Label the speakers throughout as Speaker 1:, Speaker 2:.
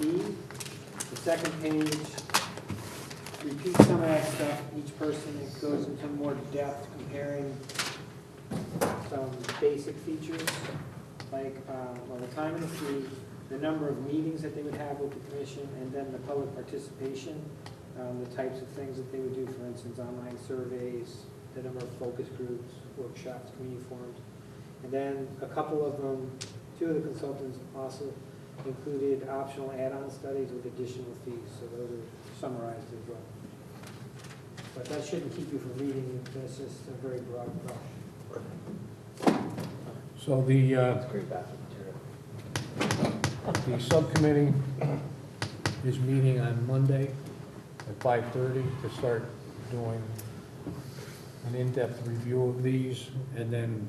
Speaker 1: E. The second page repeats some of that stuff, each person, it goes into more depth comparing some basic features, like, uh, well, the time of the fee, the number of meetings that they would have with the commission, and then the public participation, um, the types of things that they would do, for instance, online surveys, the number of focus groups, workshops, community forums. And then a couple of them, two of the consultants also included optional add-on studies with additional fees, so those are summarized as well. But that shouldn't keep you from reading, it. that's just a very broad brush.
Speaker 2: So the, uh,
Speaker 3: Great bathroom material.
Speaker 2: the subcommittee is meeting on Monday at 5:30 to start doing an in-depth review of these, and then,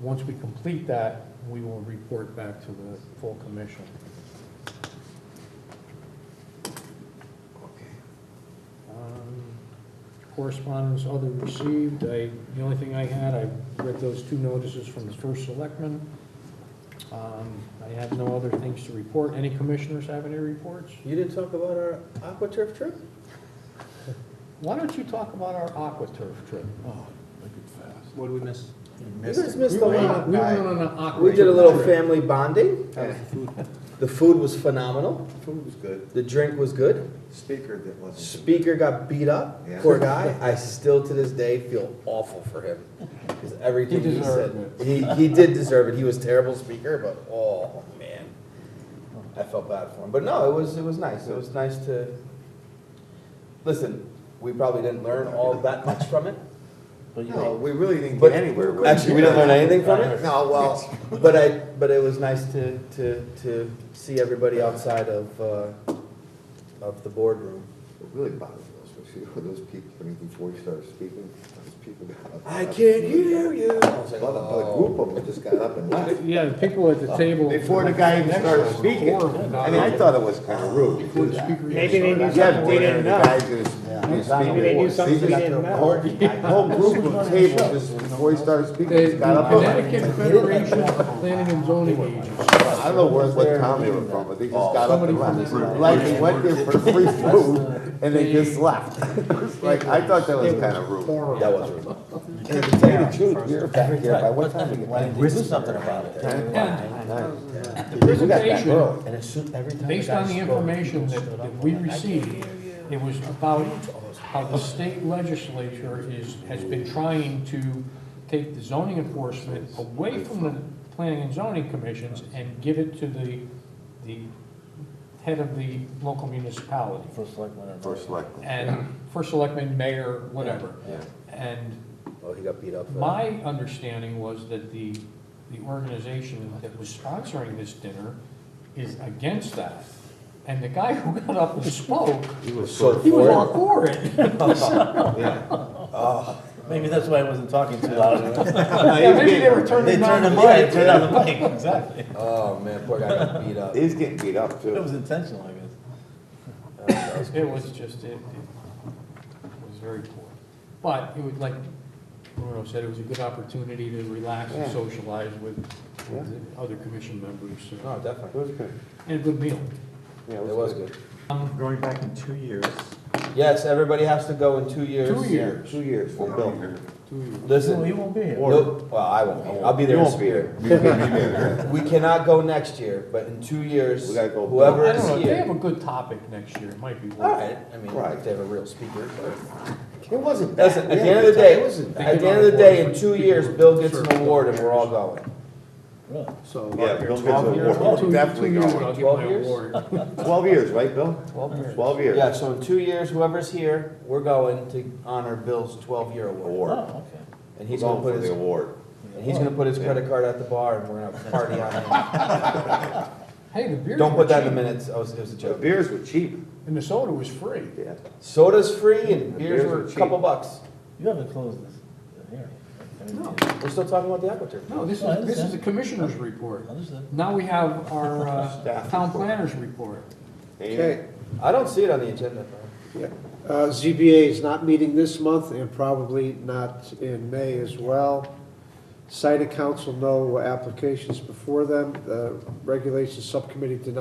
Speaker 2: once we complete that, we will report back to the full commission. Um, Correspondence other received, I, the only thing I had, I read those two notices from the first selectman. Um, I have no other things to report. Any commissioners have any reports?
Speaker 3: You didn't talk about our aqua turf trip?
Speaker 2: Why don't you talk about our AquaTurf trip?
Speaker 4: Oh, make it fast.
Speaker 3: What did we miss?
Speaker 4: You
Speaker 3: You guys missed the
Speaker 2: We went
Speaker 3: one.
Speaker 2: on- we went on an aqua.
Speaker 3: We did a little
Speaker 2: trip.
Speaker 3: family bonding.
Speaker 4: That was the food.
Speaker 3: The food was phenomenal.
Speaker 4: Food was good.
Speaker 3: The drink was good.
Speaker 4: Speaker that wasn't.
Speaker 3: Speaker got beat up.
Speaker 4: Yeah.
Speaker 3: Poor guy. I still to this day feel awful for him because everything
Speaker 2: He
Speaker 3: he, said.
Speaker 2: deserved
Speaker 3: He, he did deserve it. He was a terrible speaker, but oh man, I felt bad for him. But no, it was it was nice. It was nice to listen. We probably didn't learn all that much from it.
Speaker 4: No, we really didn't
Speaker 3: But-
Speaker 4: get anywhere. with it.
Speaker 3: Actually, we didn't learn anything from it?
Speaker 4: No, well,
Speaker 3: But I, but it was nice to, to, to see everybody outside of, uh, of the boardroom.
Speaker 5: What really bothered me was, was, you know, those people, I mean, before you started speaking, those people got up.
Speaker 3: you. I was like,
Speaker 5: A lot of, a group of them just got up and left.
Speaker 2: Yeah, the people at the table.
Speaker 4: Before the guy even
Speaker 2: next to
Speaker 4: started
Speaker 2: us were
Speaker 4: speaking.
Speaker 2: horrible.
Speaker 5: I mean, I thought it was kind of rude to
Speaker 2: Before
Speaker 5: do
Speaker 2: the
Speaker 5: that.
Speaker 2: speaker even
Speaker 1: Maybe they
Speaker 2: started.
Speaker 1: knew something we
Speaker 5: Dinner,
Speaker 1: didn't
Speaker 5: the
Speaker 1: know.
Speaker 5: guys who's- who's
Speaker 1: Maybe they knew
Speaker 5: speaking.
Speaker 1: something we
Speaker 5: See,
Speaker 1: didn't
Speaker 5: the
Speaker 1: know.
Speaker 5: Whole the whole group of table just, before he started speaking, just got up and
Speaker 2: The
Speaker 5: left.
Speaker 2: Connecticut Federation of Planning and Zoning Agents.
Speaker 5: I don't know where, what town they were from, but they just got up and
Speaker 2: Somebody
Speaker 5: left.
Speaker 2: from the-
Speaker 5: Like, they went there for free food, and they just left. Like, I thought that was kind of rude.
Speaker 3: That was rude.
Speaker 5: And to tell you the truth, we were back here, by what time did we get back?
Speaker 6: do something about it.
Speaker 2: The
Speaker 5: We got back
Speaker 2: presentation,
Speaker 5: early.
Speaker 6: And it's every time.
Speaker 2: based on the information that that we received, it was about how the state legislature is, has been trying to take the zoning enforcement away from the planning and zoning commissions and give it to the, the head of the local municipality.
Speaker 6: First selectman.
Speaker 5: First select.
Speaker 2: And first selectman, mayor, whatever.
Speaker 5: Yeah.
Speaker 2: And
Speaker 3: Oh, he got beat up. uh,
Speaker 2: my understanding was that the, the organization that was sponsoring this dinner is against that. And the guy who got up and spoke,
Speaker 5: He was
Speaker 3: So
Speaker 2: he was
Speaker 3: for
Speaker 2: all for it.
Speaker 6: Maybe that's why I wasn't talking too loud.
Speaker 2: Yeah, Maybe they were
Speaker 6: They
Speaker 2: turning
Speaker 6: turned
Speaker 2: on
Speaker 6: the
Speaker 2: the
Speaker 6: mic,
Speaker 2: mic.
Speaker 6: turned on the mic, exactly.
Speaker 3: Oh, man, poor guy got beat up.
Speaker 5: He's getting beat up
Speaker 6: It
Speaker 5: too.
Speaker 6: was intentional, I guess.
Speaker 2: It was just, it, it was very poor. But it was like Bruno said, it was a good opportunity to relax and
Speaker 5: Yeah.
Speaker 2: socialize with, with the other commission members. so-
Speaker 3: No,
Speaker 5: It
Speaker 3: definitely.
Speaker 5: was good.
Speaker 2: And a good meal.
Speaker 5: Yeah,
Speaker 3: It was good.
Speaker 6: Going back in two years.
Speaker 3: Yes, everybody has to go in two years.
Speaker 2: Two years.
Speaker 5: Two years, we'll build.
Speaker 6: Well,
Speaker 3: Listen,
Speaker 6: you won't be here.
Speaker 3: no- well, I won't. I'll be there
Speaker 5: You
Speaker 3: in
Speaker 5: won't be
Speaker 3: spirit.
Speaker 5: We can't be there.
Speaker 3: We cannot go next year, but in two years,
Speaker 5: We gotta go.
Speaker 3: whoever
Speaker 2: I
Speaker 3: is
Speaker 2: don't know, if they have a
Speaker 3: here.
Speaker 2: good topic next year, it might be
Speaker 3: All
Speaker 2: worth it.
Speaker 3: right, I mean,
Speaker 5: Right.
Speaker 3: if they have a real speaker, but.
Speaker 5: It wasn't bad.
Speaker 3: Listen, at the end of the
Speaker 5: It
Speaker 3: day,
Speaker 5: wasn't bad.
Speaker 3: at the end of the day, in two years, Bill gets an award and we're all going.
Speaker 6: Really?
Speaker 2: So.
Speaker 5: Yeah, Bill gets
Speaker 2: Twelve
Speaker 5: an
Speaker 2: years,
Speaker 5: award.
Speaker 2: two- two
Speaker 5: Definitely
Speaker 2: years
Speaker 5: going.
Speaker 2: I'll get
Speaker 3: Twelve
Speaker 2: my
Speaker 3: years?
Speaker 2: award.
Speaker 5: Twelve years, right, Bill?
Speaker 2: Twelve years.
Speaker 5: Twelve years.
Speaker 3: Yeah, so in two years, whoever's here, we're going to honor Bill's twelve-year award.
Speaker 6: Oh,
Speaker 5: Award.
Speaker 6: okay.
Speaker 3: And he's
Speaker 5: Going
Speaker 3: gonna put
Speaker 5: for
Speaker 3: his,
Speaker 5: the award.
Speaker 3: and he's gonna put his credit card at the bar and we're gonna party on
Speaker 2: Hey, the beer.
Speaker 3: it. Don't put that in the minutes, I was, it was a
Speaker 5: The
Speaker 3: joke.
Speaker 5: beers were cheap.
Speaker 2: And the soda was free.
Speaker 5: Yeah.
Speaker 3: Soda's free and
Speaker 5: The
Speaker 3: beers
Speaker 5: beers
Speaker 3: were
Speaker 5: were
Speaker 3: a
Speaker 5: cheap.
Speaker 3: couple bucks.
Speaker 6: You haven't closed this hearing.
Speaker 2: No.
Speaker 3: We're still talking about the aquaturf.
Speaker 2: No, this
Speaker 6: I
Speaker 2: is, this is
Speaker 6: understand.
Speaker 2: the commissioner's report.
Speaker 6: Understood.
Speaker 2: Now we have our uh,
Speaker 5: Staff
Speaker 2: town
Speaker 5: report.
Speaker 2: planner's report.
Speaker 5: Okay.
Speaker 3: I don't see it on the agenda, though.
Speaker 7: Uh, ZBA is not meeting this month and probably not in May as well. Site of council, no applications before them. The regulations subcommittee did not.